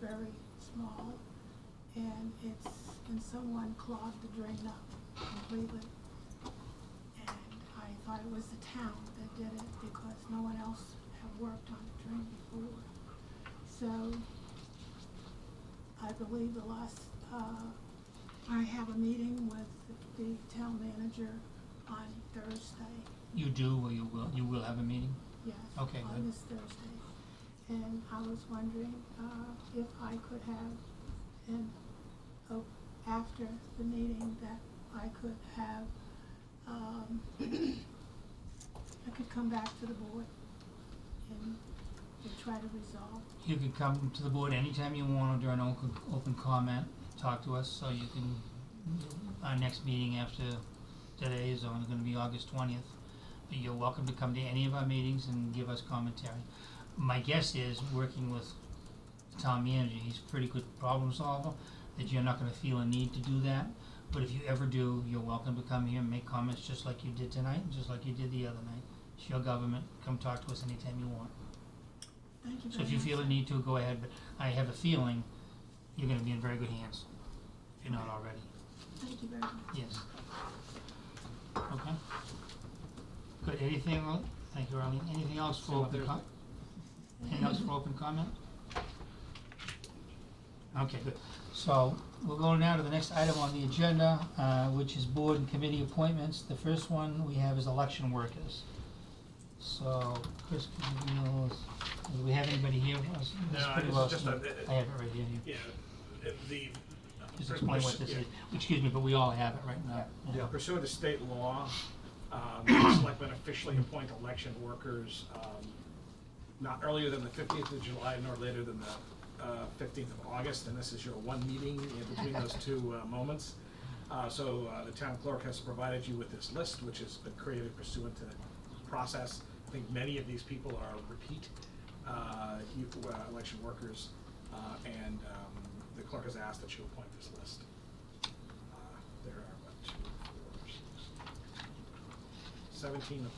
very small, and it's, and someone clogged the drain up completely. And I thought it was the town that did it because no one else had worked on the drain before. So I believe the last, uh, I have a meeting with the town manager on Thursday. You do, or you will, you will have a meeting? Yes. Okay, On good. this Thursday. And I was wondering, uh, if I could have, an oh, after the meeting, that I could have, um, I could come back to the board and, and try to resolve. You could come to the board anytime you want during open, open comment, talk to us, so you can, our next meeting after today is only gonna be August twentieth. But you're welcome to come to any of our meetings and give us commentary. My guess is, working with the town manager, he's a pretty good problem solver, that you're not gonna feel a need to do that. But if you ever do, you're welcome to come here and make comments just like you did tonight, just like you did the other night. It's your government, come talk to us anytime you want. Thank you very much. So if you feel the need to, go ahead, but I have a feeling you're gonna be in very good hands, if you're not already, Thank you very much. yes. Okay? Good, anything, el- thank you, Arlene, anything else See you for open Thursday. com- anything else for open comment? Okay, good, so we'll go now to the next item on the agenda, uh, which is board and committee appointments, the first one we have is election workers. So, Chris, could you give me those- do we have anybody here? It's No, pretty it's well just seen. a- I have it right here, you Yeah, uh, the. just explain what this Yeah. is, excuse me, but we all have it right now. Yeah, Pursuant to state law, um, the selectmen officially appoint election workers um, not earlier than the fifteenth of July nor later than the uh, fifteenth of August, and this is your one meeting in between those two uh, moments. Uh, So uh, the town clerk has provided you with this list, which has been created pursuant to the process. I think many of these people are repeat uh, you- uh, election workers, uh, and um, the clerk has asked that you appoint this list. Uh, There are what, two, four, six, seventeen of them,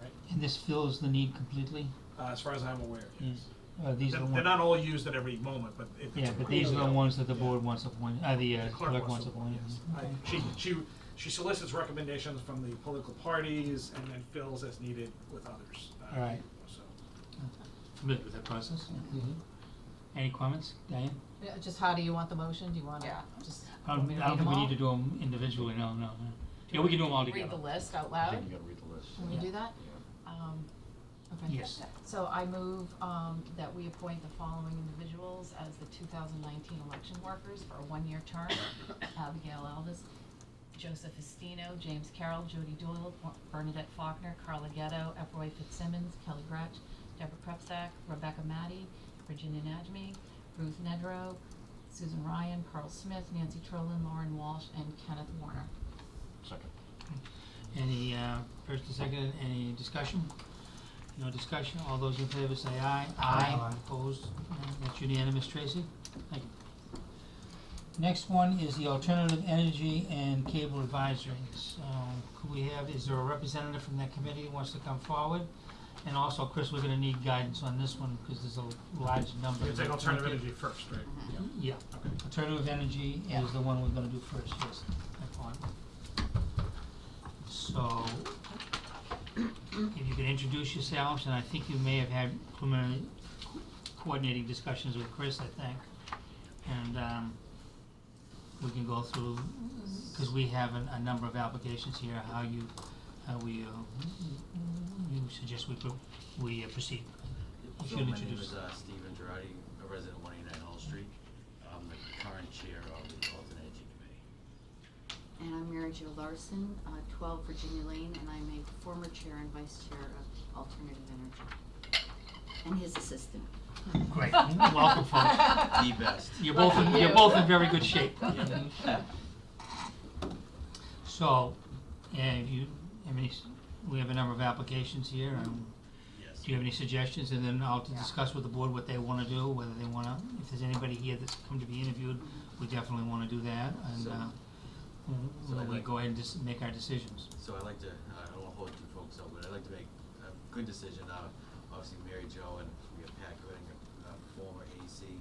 right? And this fills the need completely? Uh, as far as I'm aware, yes. Uh, these They're, are the they're ones, not all used at every moment, but if it's yeah, but approved, these are the they'll- ones that the yeah. board wants appointed, uh, the uh, The clerk wants appointed. yes. Okay. I- She, she, she solicits recommendations from the political parties and then fills as needed with others. uh, All right. So, Familiar with that process? Mm-hmm. Any comments, Diane? Yeah, Just how do you want the motion? Do you want to just? I want me don't, to Um, I don't read think we them need to all? do them individually, no, no, no. Yeah, we can do them all Read together. the list out I loud? think you gotta read the list. Can we Yeah. do that? Yeah. Um, okay. Yes. So I move, um, that we appoint the following individuals as the two thousand nineteen election workers for a one-year term. Abigail Elvis, Joseph Estino, James Carroll, Judy Doyle, Wa- Bernadette Faulkner, Carla Ghetto, Ephroy Fitzsimmons, Kelly Gretsch, Deborah Prepsack, Rebecca Matty, Virginia Najmi, Ruth Nedrow, Susan Ryan, Carl Smith, Nancy Trolin, Lauren Walsh, and Kenneth Warner. Second. Any, uh, first and second, any discussion? No discussion, all those in favor say aye. Aye. Opposed, Uh, that's unanimous, Tracy, thank you. Next one is the Alternative Energy and Cable Advisory, so could we have, is there a representative from that committee who wants to come forward? And also, Chris, we're gonna need guidance on this one, cause there's a large number. you can take alternative energy first, right? Yeah. Yeah, Okay. alternative energy Yeah. is the one we're gonna do first, yes, that one. So, if you could introduce yourselves, and I think you may have had preliminary co- coordinating discussions with Chris, I think. And, um, we can go through, cause we have a, a number of applications here, how you, how we, uh, you suggest we, pro- we uh, proceed. You So should my name introduce- is uh, Stephen Girardi, a resident of 189 Hall Street. I'm the current chair of the Alternate Energy Committee. And I'm Mary Jo Larson, uh, 12 Virginia Lane, and I'm a former chair and vice chair of Alternative Energy. And his assistant. Great, welcome folks. The best. You're both in, Lucky you're you. both in very good shape. Yeah. So, and you, I mean, we have a number of applications here, and Yes. do you have any suggestions? And then I'll to discuss with the board what they wanna do, whether they wanna, if there's anybody here that's come to be interviewed, we definitely wanna do that, and, So- uh, we'll- so I'd we'll like- go ahead and just make our decisions. So I'd like to, uh, I don't want to hold you folks up, but I'd like to make a good decision. Uh, Obviously, Mary Jo and we have Pat Gooding, a former AC,